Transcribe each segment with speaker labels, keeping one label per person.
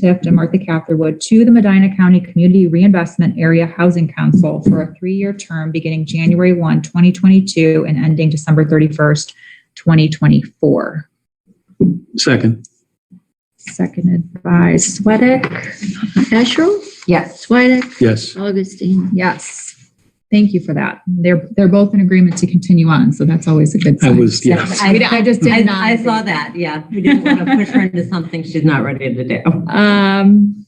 Speaker 1: Tift and Martha Catherwood to the Medina County Community Reinvestment Area Housing Council for a three-year term beginning January 1, 2022 and ending December 31st, 2024.
Speaker 2: Second.
Speaker 1: Seconded by Sweattick.
Speaker 3: Asherle?
Speaker 1: Yes.
Speaker 3: Swedek?
Speaker 2: Yes.
Speaker 3: Augustine?
Speaker 1: Yes. Thank you for that. They're, they're both in agreement to continue on, so that's always a good
Speaker 2: I
Speaker 1: sign.
Speaker 2: was, yeah.
Speaker 1: We- I just
Speaker 4: I,
Speaker 1: did not.
Speaker 4: I saw that, yeah. We didn't want to push her into something she's not ready to do.
Speaker 1: Um,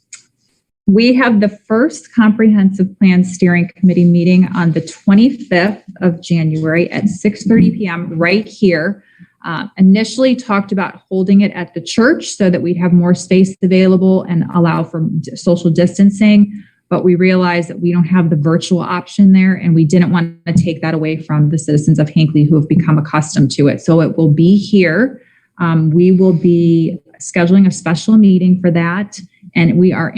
Speaker 1: we have the first comprehensive plan steering committee meeting on the 25th of January at 6:30 PM right here. Uh, initially talked about holding it at the church so that we'd have more space available and allow for d- social distancing. But we realized that we don't have the virtual option there and we didn't want to take that away from the citizens of Hinckley who have become accustomed to it. So it will be here. Um, we will be scheduling a special meeting for that. And we are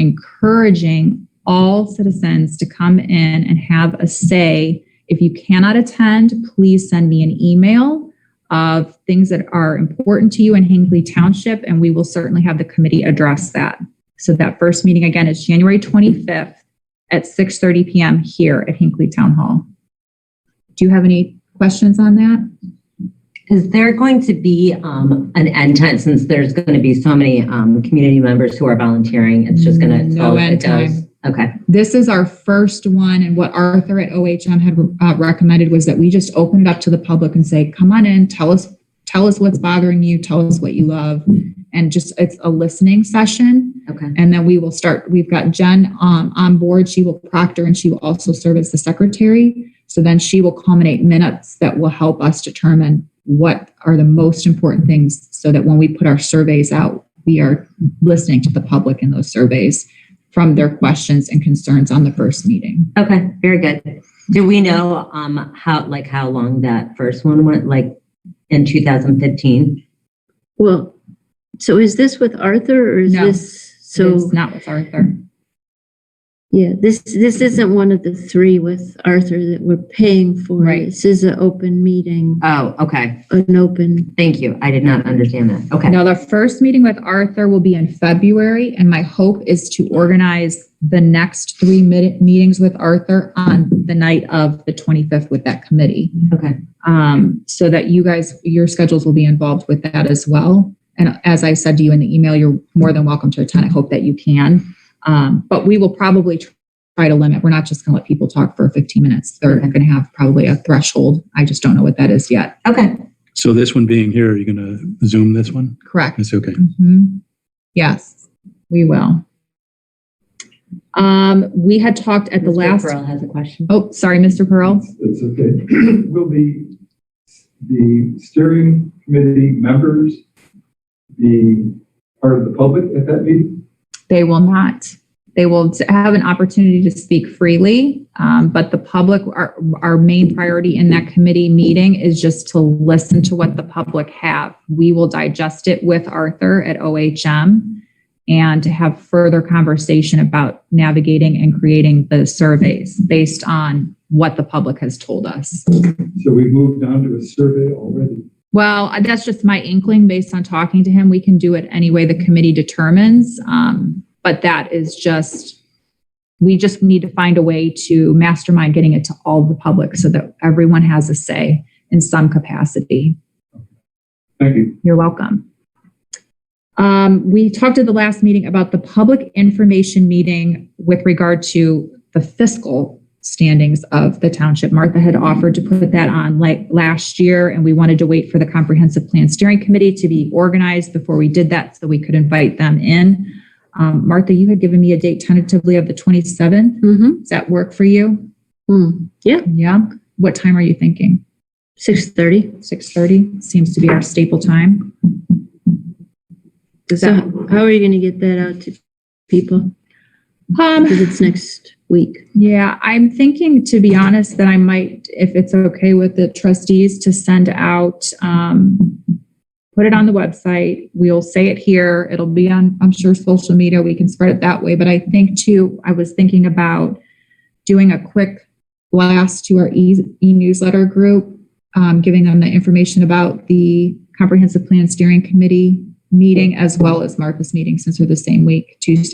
Speaker 1: encouraging all citizens to come in and have a say. If you cannot attend, please send me an email of things that are important to you in Hinckley Township, and we will certainly have the committee address that. So that first meeting again is January 25th at 6:30 PM here at Hinckley Town Hall. Do you have any questions on that?
Speaker 4: Is there going to be um, an end time since there's going to be so many um, community members who are volunteering? It's just going to
Speaker 1: No end time.
Speaker 4: Okay.
Speaker 1: this is our first one and what arthur at ohm had uh, recommended was that we just open it up to the public and say come on in tell us tell us what's bothering you tell us what you love and just it's a listening session
Speaker 4: Okay.
Speaker 1: and then we will start we've got jen um, on board she will proctor and she will also serve as the secretary so then she will culminate minutes that will help us determine what are the most important things so that when we put our surveys out we are listening to the public in those surveys from their questions and concerns on the first meeting
Speaker 4: Okay. Very good. Do we know um, how like how long that first one went? Like in 2015?
Speaker 3: Well, so is this with Arthur or is
Speaker 1: No.
Speaker 3: this, so,
Speaker 1: it's not with arthur
Speaker 3: yeah, this, this isn't one of the three with Arthur that we're paying for.
Speaker 1: Right.
Speaker 3: This is an open meeting,
Speaker 4: Oh, okay.
Speaker 3: an open,
Speaker 4: Thank you. I did not understand that. Okay.
Speaker 1: Now, the first meeting with Arthur will be in February, and my hope is to organize the next three mi- meetings with Arthur on the night of the 25th with that committee.
Speaker 4: Okay.
Speaker 1: Um, so that you guys, your schedules will be involved with that as well. And as I said to you in the email, you're more than welcome to attend. I hope that you can. Um, but we will probably tr- try to limit. We're not just going to let people talk for 15 minutes. They're
Speaker 4: Okay.
Speaker 1: going to have probably a threshold. I just don't know what that is yet.
Speaker 4: Okay.
Speaker 2: So this one being here, are you going to zoom this one?
Speaker 1: Correct.
Speaker 2: That's okay.
Speaker 1: Mhm. Yes, we will. Um, we had talked at the
Speaker 4: Mr.
Speaker 1: last,
Speaker 4: Pearl has a question.
Speaker 1: oh, sorry, Mr. Pearl.
Speaker 5: It's okay. Will the, the steering committee members be part of the public at that meeting?
Speaker 1: They will not. They will t- have an opportunity to speak freely, um, but the public, our, our main priority in that committee meeting is just to listen to what the public have. We will digest it with Arthur at OHM and to have further conversation about navigating and creating the surveys based on what the public has told us.
Speaker 5: So we've moved on to a survey already.
Speaker 1: Well, I- that's just my inkling based on talking to him. We can do it any way the committee determines. Um, but that is just, we just need to find a way to mastermind getting it to all the public so that everyone has a say in some capacity.
Speaker 5: Thank you.
Speaker 1: You're welcome. Um, we talked at the last meeting about the public information meeting with regard to the fiscal standings of the township. Martha had offered to put that on like last year, and we wanted to wait for the comprehensive plan steering committee to be organized before we did that so we could invite them in. Um, Martha, you had given me a date tentatively of the 27th.
Speaker 3: mm-hmm,
Speaker 1: Does that work for you?
Speaker 3: yeah,
Speaker 1: Yeah. What time are you thinking?
Speaker 3: 6:30.
Speaker 1: 6:30 seems to be our staple time. Does
Speaker 3: So
Speaker 1: that,
Speaker 3: how are you going to get that out to people?
Speaker 1: um,
Speaker 3: Because it's next week.
Speaker 1: yeah, I'm thinking, to be honest, that I might, if it's okay with the trustees, to send out, um, put it on the website. We'll say it here. It'll be on, I'm sure, social media. We can spread it that way. But I think too, I was thinking about doing a quick blast to our e- e-newsletter group, um, giving them the information about the comprehensive plan steering committee meeting as well as Martha's meeting since they're the same week, Tuesday